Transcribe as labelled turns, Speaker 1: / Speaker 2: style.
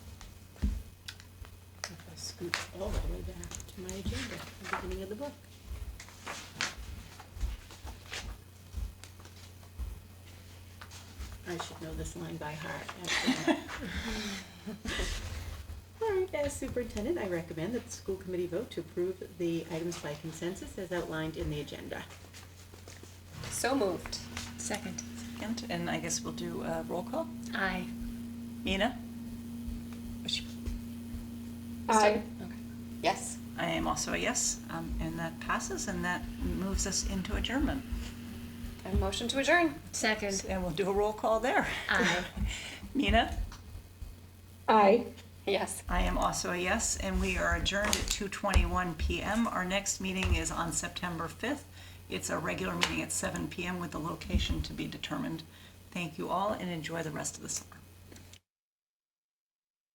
Speaker 1: It's all the way back to my agenda, the beginning of the book. I should know this line by heart. after that. All right, as superintendent, I recommend that the school committee vote to approve the items by consensus as outlined in the agenda.
Speaker 2: So moved.
Speaker 3: Second.
Speaker 4: Second, and I guess we'll do a roll call.
Speaker 3: Aye.
Speaker 4: Mina? Was she-
Speaker 2: Aye.
Speaker 3: Okay.
Speaker 2: Yes.
Speaker 4: I am also a yes, um, and that passes, and that moves us into adjournment.
Speaker 2: And motion to adjourn.
Speaker 3: Second.
Speaker 4: And we'll do a roll call there.
Speaker 3: Aye.
Speaker 4: Mina?
Speaker 2: Aye. Yes.
Speaker 4: I am also a yes, and we are adjourned at 2:21 PM. Our next meeting is on September 5th. It's a regular meeting at 7 PM with the location to be determined. Thank you all, and enjoy the rest of the summer.